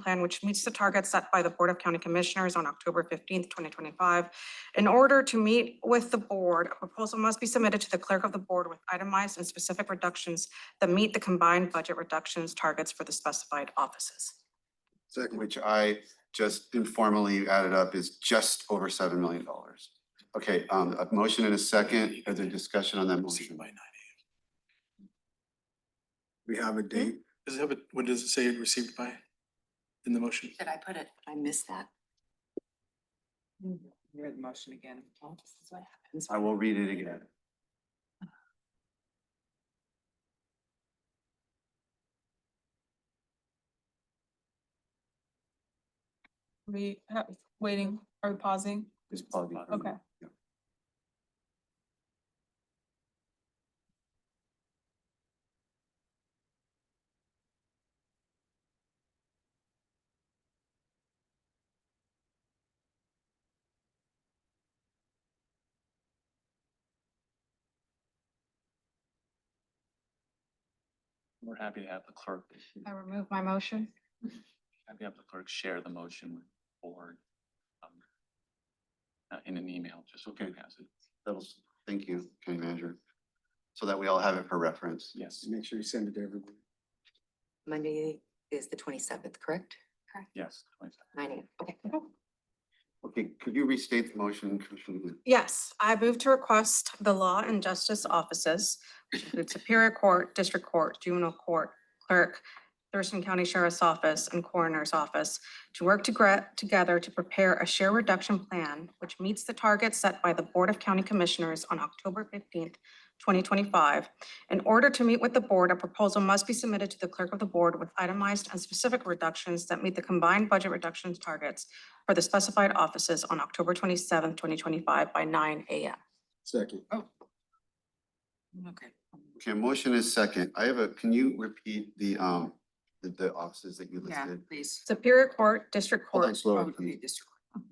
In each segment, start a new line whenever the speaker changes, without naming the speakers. plan which meets the target set by the Board of County Commissioners on October fifteenth, twenty twenty-five. In order to meet with the board, a proposal must be submitted to the clerk of the board with itemized and specific reductions that meet the combined budget reductions targets for the specified offices.
Second, which I just informally added up is just over seven million dollars. Okay, um, a motion and a second, is there discussion on that motion?
We have a date.
Does it have a, what does it say it received by in the motion?
Did I put it? I missed that.
Read the motion again.
Oh, this is what happens.
I will read it again.
We have, waiting, are we pausing?
Just pause it.
Okay.
We're happy to have the clerk,
I remove my motion.
happy to have the clerk share the motion with the board. um, uh, In an email, just so we
Okay.
can pass it.
That'll, thank you, County Manager. So that we all have it for reference.
Yes,
Make sure you send it to everyone.
Monday is the twenty-seventh, correct?
yes. please.
Nine AM, okay.
Okay, could you restate the motion, Commissioner? Wood?
Yes, I move to request the Law and Justice Offices, which include Superior Court, District Court, Juvenile Court, Clerk, Thurston County Sheriff's Office, and Coroner's Office to work togre- together to prepare a share reduction plan which meets the target set by the Board of County Commissioners on October fifteenth, twenty twenty-five. In order to meet with the board, a proposal must be submitted to the clerk of the board with itemized and specific reductions that meet the combined budget reductions targets for the specified offices on October twenty-seventh, twenty twenty-five by nine AM.
Second.
Okay.
Okay, motion is second. I have a, can you repeat the, um, the, the offices that you
Yeah,
listed?
please.
Superior Court, District
Hold on
Court,
Oh,
slower,
it'll be
please.
district court.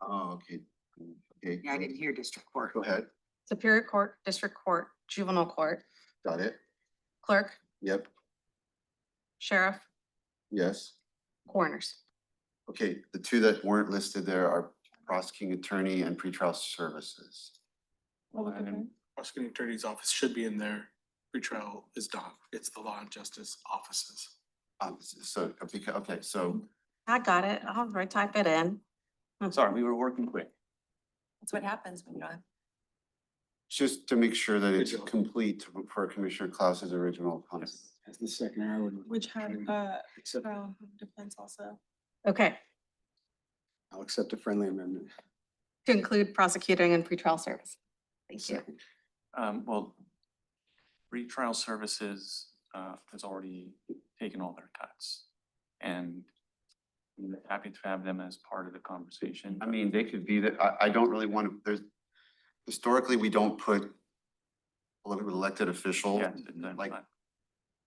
Oh, okay. Okay.
Yeah, I didn't hear district court.
Go ahead,
Superior Court, District Court, Juvenile Court,
got it.
Clerk,
Yep,
Sheriff,
yes.
Coroners.
Okay, the two that weren't listed there are prosecuting attorney and pretrial services.
And then
Prosecuting attorney's office should be in there. Pretrial is done. It's the law and justice offices.
Um, so, okay, okay, so,
I got it. I'll right type it in.
Sorry, we were working quick.
That's what happens when you don't have
just to make sure that it's
Digital.
complete for Commissioner Klaus's original comment.
That's the second I would.
Which had, uh,
Accept-
trial defense also.
Okay,
I'll accept a friendly amendment.
to include prosecuting and pretrial service. Thank you.
Second.
Um, well, pretrial services, uh, has already taken all their cuts. And I'm happy to have them as part of the conversation.
I mean, they could be that, I, I don't really want to, there's, historically, we don't put ele- elected official,
Yeah, they're
like,
not-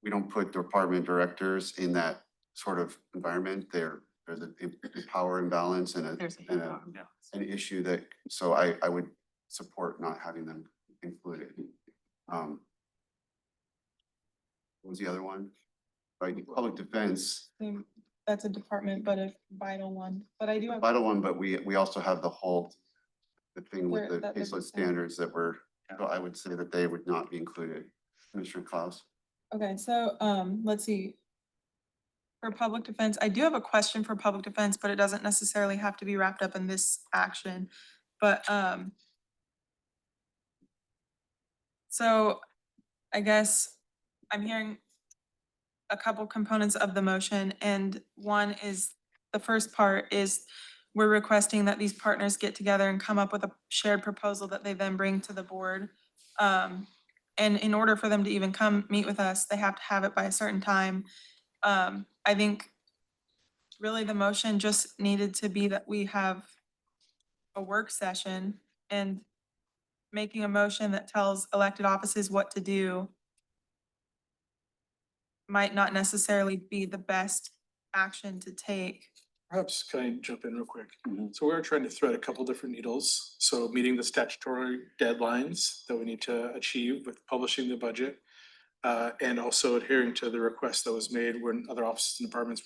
we don't put department directors in that sort of environment. There, there's a a power imbalance and a,
There's a
and
hand
a,
on.
yeah.
an issue that, so I, I would support not having them included. Um. What was the other one? Like, public defense,
Um, That's a department, but a vital one, but I do have.
vital one, but we, we also have the whole, the thing with
There-
the
that
caseload
doesn't-
standards that were,
Yeah.
so I would say that they would not be included. Commissioner Klaus?
Okay, so, um, let's see. For public defense, I do have a question for public defense, but it doesn't necessarily have to be wrapped up in this action, but, um. So, I guess I'm hearing a couple components of the motion, and one is, the first part is we're requesting that these partners get together and come up with a shared proposal that they then bring to the board. Um, and in order for them to even come meet with us, they have to have it by a certain time. Um, I think really the motion just needed to be that we have a work session and making a motion that tells elected offices what to do might not necessarily be the best action to take.
Perhaps can I jump in real quick?
Mhm.
So we are trying to thread a couple different needles. So meeting the statutory deadlines that we need to achieve with publishing the budget. Uh, and also adhering to the request that was made when other offices and departments